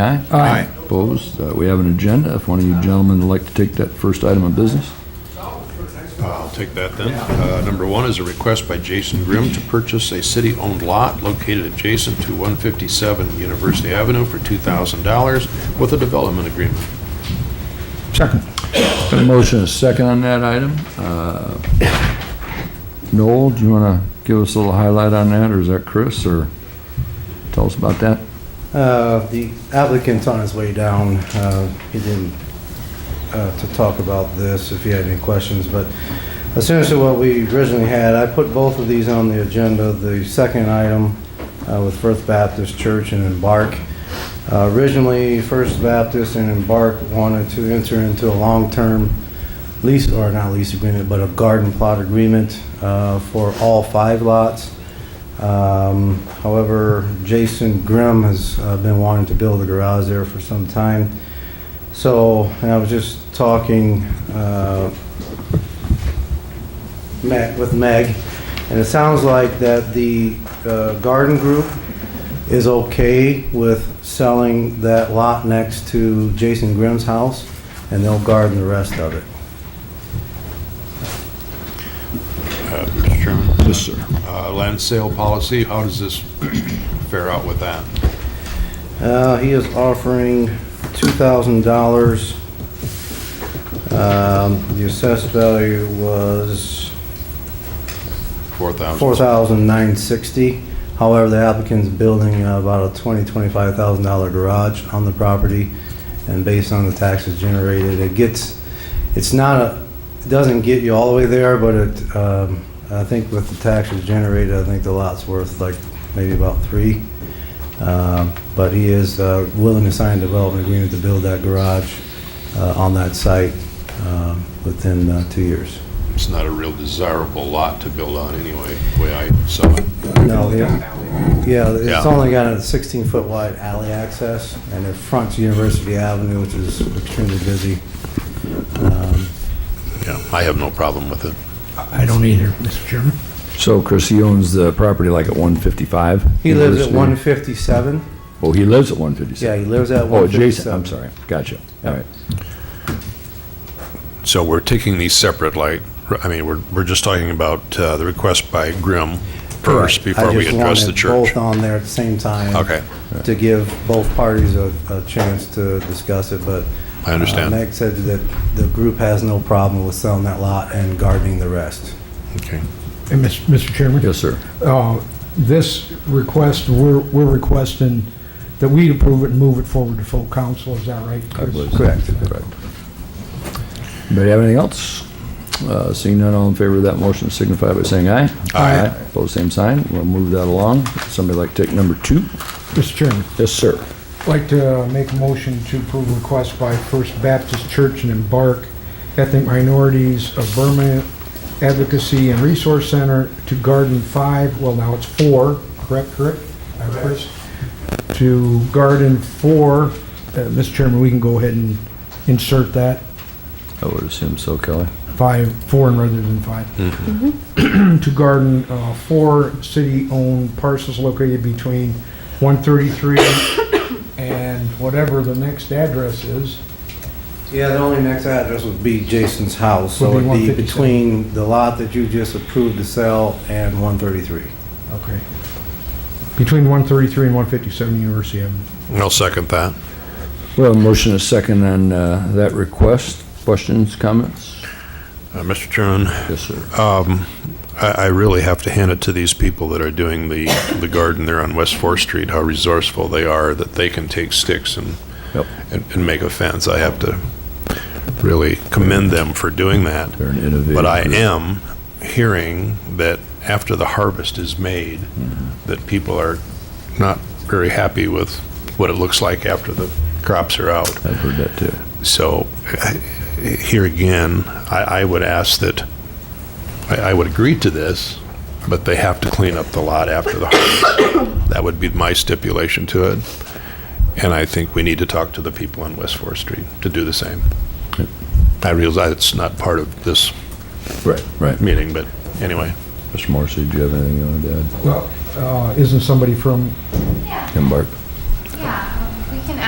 Aye. Aye. Opposed? Uh, We have an agenda. If one of you gentlemen would like to take that first item of business. I'll take that then. Uh, Number one is a request by Jason Grimm to purchase a city-owned lot located adjacent to 157 University Avenue for $2,000 with a development agreement. Second. Got a motion, and a second on that item. Uh, Noel, do you want to give us a little highlight on that, or is that Chris, or tell us about that? Uh, The applicant's on his way down. Uh, He didn't, uh, to talk about this if he had any questions, but essentially what we originally had, I put both of these on the agenda, the second item uh, with First Baptist Church and Embark. Uh, Originally, First Baptist and Embark wanted to enter into a long-term lease, or not lease agreement, but a garden plot agreement uh, for all five lots. Um, However, Jason Grimm has uh, been wanting to build a garage there for some time. So, and I was just talking uh, Meg- with Meg, and it sounds like that the uh, garden group is okay with selling that lot next to Jason Grimm's house, and they'll garden the rest of it. Uh, Mr. Chairman? Yes, sir. Uh, Land sale policy, how does this fare out with that? Uh, he is offering two thousand dollars. Um, the assessed value was 4,000? four thousand nine sixty. However, the applicant's building uh, about a twenty, twenty-five thousand dollar garage on the property. And based on the taxes generated, it gets, it's not a, it doesn't get you all the way there, but it, um, I think with the taxes generated, I think the lot's worth like maybe about three. Um, But he is uh, willing to sign a development agreement to build that garage uh, on that site um, within uh, two years. It's not a real desirable lot to build on anyway, the way I saw it. No, yeah. Yeah, it's Yeah. only got a 16-foot wide alley access, and it fronts University Avenue, which is extremely busy. Um, Yeah, I have no problem with it. I don't either, Mr. Chairman. So Chris, he owns the property like at 155? He lives at University? 157. Oh, he lives at Yeah, 157? he lives at 157. Oh, adjacent, I'm sorry. Gotcha. All right. So we're taking these separate, like, I mean, we're, we're just talking about uh, the request by Grimm first Correct. I before we just address the wanted church. both on there at the same time. Okay. To give both parties a, a chance to discuss it, but. I understand. uh, Meg said that the group has no problem with selling that lot and gardening the rest. Okay. And Mis- Mr. Uh, Chairman? Yes, sir. Uh, This request, we're we're requesting that we approve it and move it forward to full council, is that right? I Chris? believe. Correct. Correct. Anybody have anything else? Uh, Seeing none, all in favor of that motion signify by saying aye. Aye. Pose same sign. We'll move that along. Somebody like to take number two? Mr. Chairman, Yes, sir. I'd like to make a motion to approve a request by First Baptist Church and Embark Ethnic Minorities of Burma Advocacy and Resource Center to garden five, well, now it's four, correct, correct? Uh, Chris? To garden four, uh, Mr. Chairman, we can go ahead and insert that. I would assume so, Kelly. five, four and rather than five. To garden uh, four city-owned parcels located between 133 and whatever the next address is. Yeah, the only next address would be Jason's house, so Would be it'd be 157. between the lot that you just approved to sell and 133. Okay. Between 133 and 157 University Avenue. I'll second that. Well, motion is second on uh, that request. Questions, comments? Uh, Mr. Chairman, Yes, sir. um, I, I really have to hand it to these people that are doing the, the garden there on West Fourth Street, how resourceful they are, that they can take sticks and, Yep. and, and make a fence. I have to really commend them for doing that. They're an innovative. But I group. am hearing that after the harvest is made, that people are not very happy with what it looks like after the crops are out. I've heard that too. So here again, I, I would ask that, I, I would agree to this, but they have to clean up the lot after the harvest. That would be my stipulation to it. And I think we need to talk to the people on West Fourth Street to do the same. I realize it's not part of this Right, right. meeting, but anyway. Mr. Morrissey, do you have anything you want to Well, uh, isn't somebody from, add? Embark.